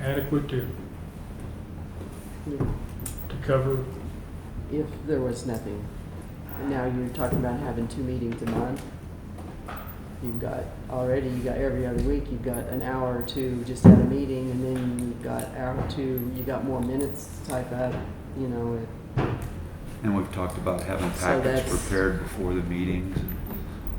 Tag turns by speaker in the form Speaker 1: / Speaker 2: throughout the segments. Speaker 1: adequate to, to cover?
Speaker 2: if there was nothing. And now you're talking about having two meetings a month. You've got, already, you got every other week, you've got an hour or two just at a meeting, and then you've got hour or two, you got more minutes type up, you know, it.
Speaker 3: And we've talked about having
Speaker 2: So
Speaker 3: packets
Speaker 2: that's-
Speaker 3: prepared before the meetings.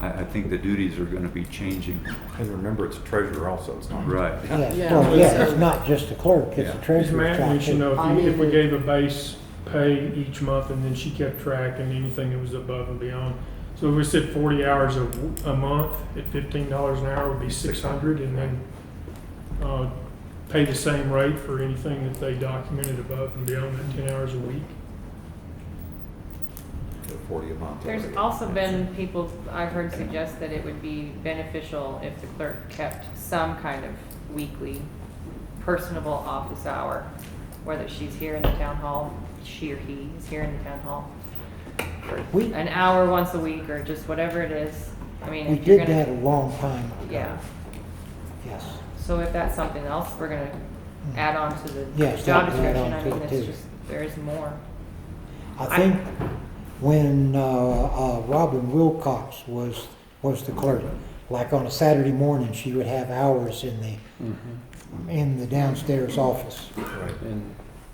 Speaker 3: I, I think the duties are gonna be changing.
Speaker 4: And remember, it's a treasurer also, it's not.
Speaker 3: Right.
Speaker 2: Yeah.
Speaker 5: Yeah, well, yeah, it's
Speaker 2: So-
Speaker 5: not just the clerk, it's
Speaker 3: Yeah.
Speaker 5: the
Speaker 1: Ms.
Speaker 5: treasurer's
Speaker 1: Matt,
Speaker 5: job
Speaker 1: we should
Speaker 5: too.
Speaker 1: know
Speaker 2: I
Speaker 1: if, you- if we
Speaker 2: mean-
Speaker 1: gave a base pay each month and then she kept track and anything that was above and beyond. So if we said forty hours a, w- a month at fifteen dollars an hour would be six hundred and then, uh, pay the same rate for anything that they documented above and beyond that ten hours a week.
Speaker 4: They're Forty a month.
Speaker 6: There's
Speaker 4: already.
Speaker 6: also been people, I've heard suggest that it would be beneficial if the clerk kept some kind of weekly personable office hour, whether she's here in the town hall, she or he is here in the town hall,
Speaker 5: We,
Speaker 6: an hour once a week or just whatever it is. I mean,
Speaker 5: we
Speaker 6: if you're
Speaker 5: did that a
Speaker 6: gonna,
Speaker 5: long time ago.
Speaker 6: yeah,
Speaker 5: Yes.
Speaker 6: so if that's something else, we're gonna
Speaker 5: Mm.
Speaker 6: add on to the
Speaker 5: Yes,
Speaker 6: job
Speaker 5: that would add
Speaker 6: description.
Speaker 5: on
Speaker 6: I
Speaker 5: to
Speaker 6: mean,
Speaker 5: it
Speaker 6: it's
Speaker 5: too.
Speaker 6: just, there is more.
Speaker 5: I
Speaker 6: I-
Speaker 5: think when uh, uh, Robin Wilcox was, was the clerk, like on a Saturday morning, she would have hours in the, in the downstairs office.
Speaker 4: Right.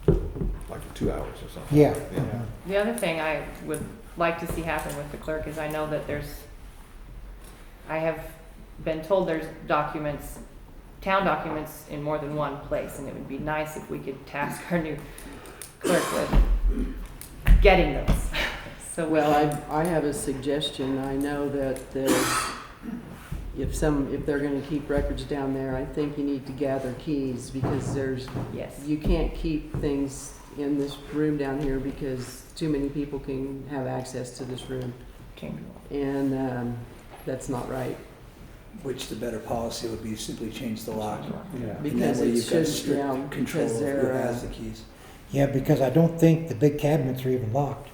Speaker 4: Like two hours or something.
Speaker 5: Yeah.
Speaker 4: Yeah.
Speaker 6: The other thing I would like to see happen with the clerk is I know that there's, I have been told there's documents, town documents in more than one place, and it would be nice if we could task our new clerk with getting those. So,
Speaker 2: Well,
Speaker 6: well,
Speaker 2: I, I have a suggestion. I know that there's, if some, if they're gonna keep records down there, I think you need to gather keys because there's,
Speaker 6: yes,
Speaker 2: you can't keep things in this room down here because too many people can have access to this room.
Speaker 6: change
Speaker 2: And, um, that's not right.
Speaker 7: Which the better policy would be simply change the lock.
Speaker 6: the law.
Speaker 7: And that
Speaker 2: Because
Speaker 7: way
Speaker 2: it
Speaker 7: you've got
Speaker 2: should, yeah,
Speaker 7: strict control of
Speaker 2: because
Speaker 7: who
Speaker 2: they're, uh,
Speaker 7: has the keys.
Speaker 5: Yeah, because I don't think the big cabinets are even locked,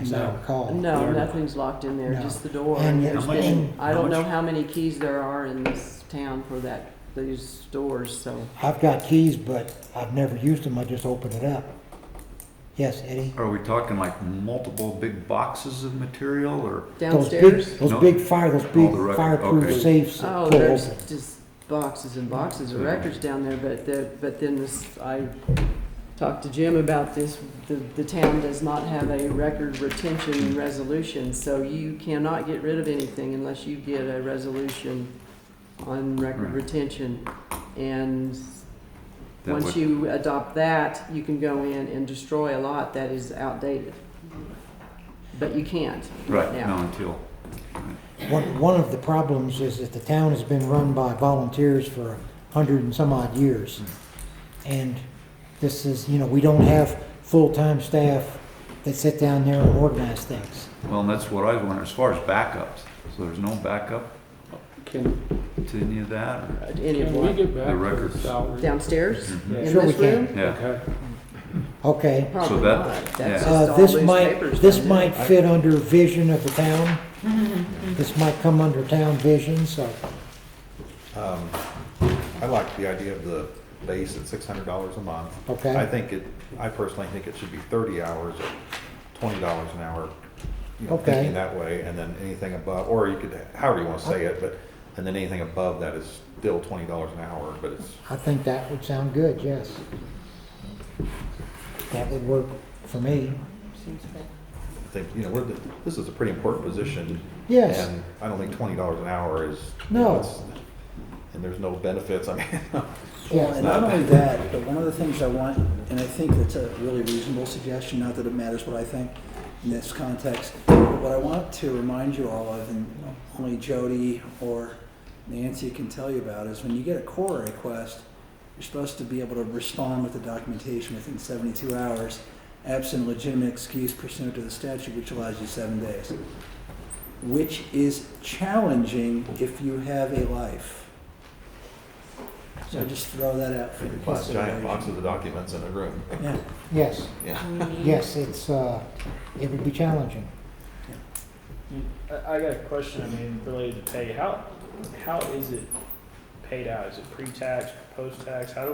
Speaker 5: as I recall.
Speaker 2: No, nothing's locked in there,
Speaker 5: No.
Speaker 2: just the door.
Speaker 5: And
Speaker 2: There's
Speaker 5: how much-
Speaker 2: been- I
Speaker 4: how
Speaker 2: don't know
Speaker 4: much-
Speaker 2: how many keys there are in this town for that, these doors, so.
Speaker 5: I've got keys, but I've never used them, I just open it up. Yes, Eddie?
Speaker 3: Are we talking like multiple big boxes of material or?
Speaker 5: Those big-
Speaker 2: Downstairs?
Speaker 5: Those
Speaker 3: No.
Speaker 5: big fire, those big
Speaker 3: the record, okay.
Speaker 5: fireproof safes
Speaker 2: Oh,
Speaker 5: that pull
Speaker 2: there's
Speaker 5: open.
Speaker 2: just boxes and boxes of
Speaker 3: Yeah.
Speaker 2: records down there, but the, but then this, I talked to Jim about this, the, the town does not have a record retention resolution, so you cannot get rid of anything unless you get a resolution on record
Speaker 3: Right.
Speaker 2: retention. And
Speaker 3: that
Speaker 2: once
Speaker 3: would-
Speaker 2: you adopt that, you can go in and destroy a lot that is outdated. But you can't right
Speaker 3: Right,
Speaker 2: now.
Speaker 3: no, until,
Speaker 5: One, one of the problems is that the town has been run by volunteers for a hundred and some odd years. And this is, you know, we don't have full-time staff that sit down there and organize things.
Speaker 3: well, and that's what I was wondering, as far as backups. So there's no backup
Speaker 8: Can,
Speaker 3: to any of that? or-
Speaker 2: uh, Any of
Speaker 8: can we
Speaker 2: what?
Speaker 8: get back
Speaker 3: The
Speaker 8: to the
Speaker 3: records.
Speaker 8: salary?
Speaker 2: Downstairs?
Speaker 3: Mhm.
Speaker 8: Yeah.
Speaker 2: In
Speaker 5: Sure we
Speaker 2: this
Speaker 5: can.
Speaker 2: room?
Speaker 3: Yeah,
Speaker 8: Okay.
Speaker 5: Okay.
Speaker 2: Probably
Speaker 3: So that-
Speaker 2: not. That's
Speaker 3: yeah.
Speaker 2: just
Speaker 5: Uh,
Speaker 2: all
Speaker 5: this
Speaker 2: loose
Speaker 5: might,
Speaker 2: papers
Speaker 5: this
Speaker 2: down there.
Speaker 5: might fit under vision of the town. This might come under town vision, so,
Speaker 4: Um, I like the idea of the base at six hundred dollars a month.
Speaker 5: Okay.
Speaker 4: I think it, I personally think it should be thirty hours or twenty dollars an hour. you know,
Speaker 5: Okay.
Speaker 4: Thinking that way, and then anything above, or you could, however you wanna say
Speaker 5: Uh,
Speaker 4: it, but, and then anything above that is still twenty dollars an hour, but it's,
Speaker 5: I think that would sound good, yes. That would work for me.
Speaker 6: Seems fair.
Speaker 4: I think, you know, we're, the- this is a pretty important position.
Speaker 5: Yes.
Speaker 4: And I don't think twenty dollars an hour is.
Speaker 5: No.
Speaker 4: it's- And there's no benefits, I mean,
Speaker 5: Yeah.
Speaker 7: And not only that, but one of the things I want, and I think that's a really reasonable suggestion, not that it matters what I think in this context, but what I want to remind you all of, and only Jody or Nancy can tell you about, is when you get a core request, you're supposed to be able to respond with the documentation within 72 hours, absent legitimate excuse pursuant to the statute, which allows you seven days, which is challenging if you have a life. So just throw that out for your
Speaker 4: plus giant
Speaker 7: consideration.
Speaker 4: boxes of documents in a room,
Speaker 7: Yeah,
Speaker 5: Yes.
Speaker 4: yeah.
Speaker 5: Yes, it's, uh, it would be challenging.
Speaker 8: I, I got a question, I mean, related to pay. How, how is it paid out? Is it pre-tax, post-tax? How do